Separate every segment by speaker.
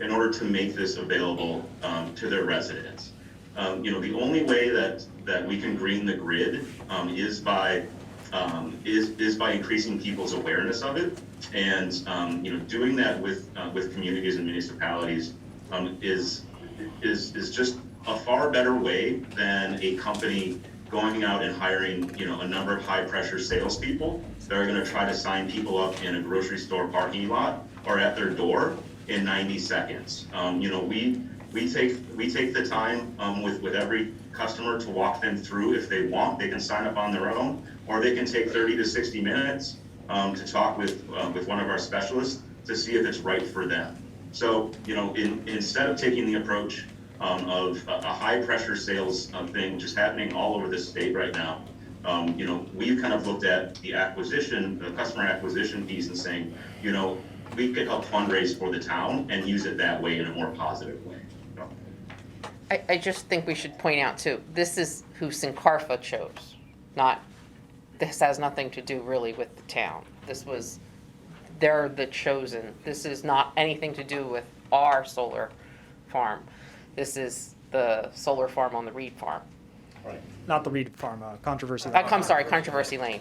Speaker 1: in order to make this available um, to their residents. Um, You know, the only way that, that we can green the grid um, is by, um, is, is by increasing people's awareness of it. And, um, you know, doing that with, uh, with communities and municipalities um, is, is, is just a far better way than a company going out and hiring, you know, a number of high-pressure salespeople that are gonna try to sign people up in a grocery store parking lot or at their door in ninety seconds. Um, you know, we, we take, we take the time, um, with, with every customer to walk them through if they want, they can sign up on their own, or they can take thirty to sixty minutes, um, to talk with, uh, with one of our specialists to see if it's right for them. So, you know, in, instead of taking the approach, um, of a, a high-pressure sales, uh, thing just happening all over the state right now, um, you know, we've kind of looked at the acquisition, the customer acquisition piece and saying, you know, we could help fundraise for the town and use it that way in a more positive way. So,
Speaker 2: I, I just think we should point out too, this is who Sincarfa chose, not, this has nothing to do really with the town. This was, they're the chosen. This is not anything to do with our solar farm. This is the solar farm on the Reed Farm.
Speaker 3: Right. Not the Reed Farm, uh, controversy.
Speaker 2: Uh, I'm sorry, Controversy Lane.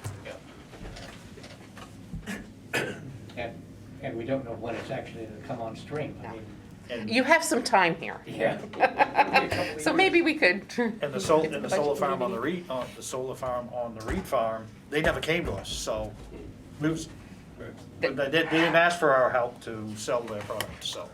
Speaker 4: And, and we don't know when it's actually gonna come on stream. I mean,
Speaker 2: You have some time here.
Speaker 4: yeah.
Speaker 2: So maybe we could.
Speaker 5: And the sol,
Speaker 2: It's
Speaker 5: and the
Speaker 2: budget
Speaker 5: solar farm on the
Speaker 2: committee.
Speaker 5: Reed, on the solar farm on the Reed farm, they never came to us, so moves. But they, did- they didn't ask for our help to sell their product, so.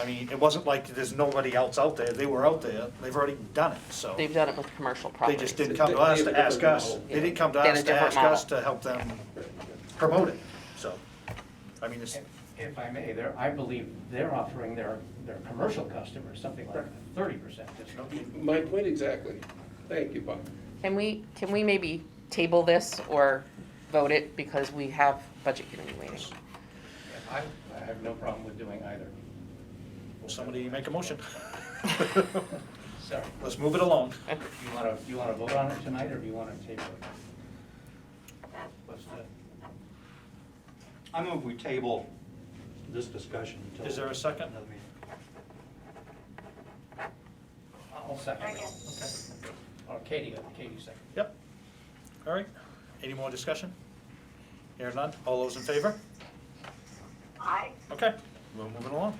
Speaker 5: I mean, it wasn't like there's nobody else out there, they were out there, they've already done it, so.
Speaker 2: They've done it with commercial
Speaker 5: They
Speaker 2: properties.
Speaker 5: just didn't come to us to ask us, they didn't come to
Speaker 2: They had a
Speaker 5: us to
Speaker 2: different
Speaker 5: ask us
Speaker 2: model.
Speaker 5: to help them promote it, so. I mean, it's,
Speaker 4: If I may, they're, I believe they're offering their, their commercial customers something like thirty percent discount.
Speaker 6: My point exactly. Thank you, Bob.
Speaker 2: Can we, can we maybe table this or vote it because we have budget committee waiting?
Speaker 4: I, I have no problem with doing either.
Speaker 5: will somebody make a motion?
Speaker 4: Sorry,
Speaker 5: Let's move it along.
Speaker 4: you wanna, you wanna vote on it tonight, or do you wanna table it? What's the,
Speaker 7: I move we table this discussion until.
Speaker 5: Is there a second?
Speaker 7: another meeting.
Speaker 4: I'll second it. Or Katie, Katie second.
Speaker 5: Yep. All right. Any more discussion? Here none. All those in favor?
Speaker 8: Aye.
Speaker 5: Okay, we're moving along.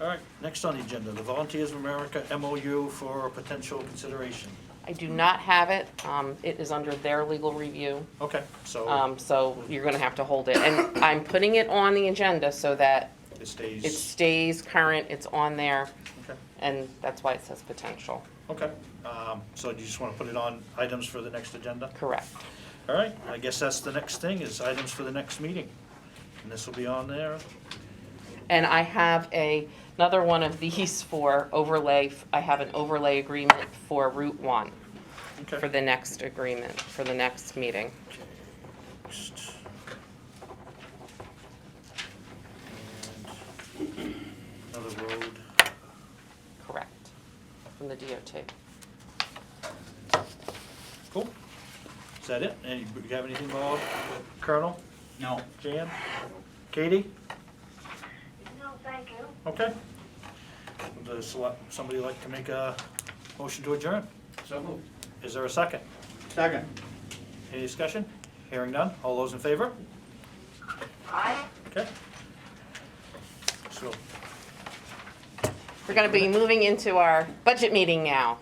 Speaker 5: All right, next on the agenda, the Volunteers of America MOU for potential consideration.
Speaker 2: I do not have it. Um, it is under their legal review.
Speaker 5: Okay, so
Speaker 2: Um, so you're gonna have to hold it. And I'm putting it on the agenda so that
Speaker 5: it
Speaker 2: it
Speaker 5: stays,
Speaker 2: stays current, it's on there,
Speaker 5: okay,
Speaker 2: and that's why it says potential.
Speaker 5: okay. Um, So do you just want to put it on items for the next agenda?
Speaker 2: Correct.
Speaker 5: All right, I guess that's the next thing, is items for the next meeting. And this will be on there.
Speaker 2: And I have a, another one of these for overlay. I have an overlay agreement for Route One for
Speaker 5: Okay.
Speaker 2: the next agreement, for the next meeting.
Speaker 5: And Another road.
Speaker 2: Correct. From the DOT.
Speaker 5: Cool. Is that it? Any, you have anything, Bob? Colonel,
Speaker 7: No.
Speaker 5: Jan, Katie?
Speaker 8: No, thank you.
Speaker 5: Okay. Does sele- somebody like to make a motion to adjourn?
Speaker 4: So moved.
Speaker 5: Is there a second?
Speaker 7: Second.
Speaker 5: Any discussion? Hearing none. All those in favor?
Speaker 8: Aye.
Speaker 5: Okay. So,
Speaker 2: We're gonna be moving into our budget meeting now.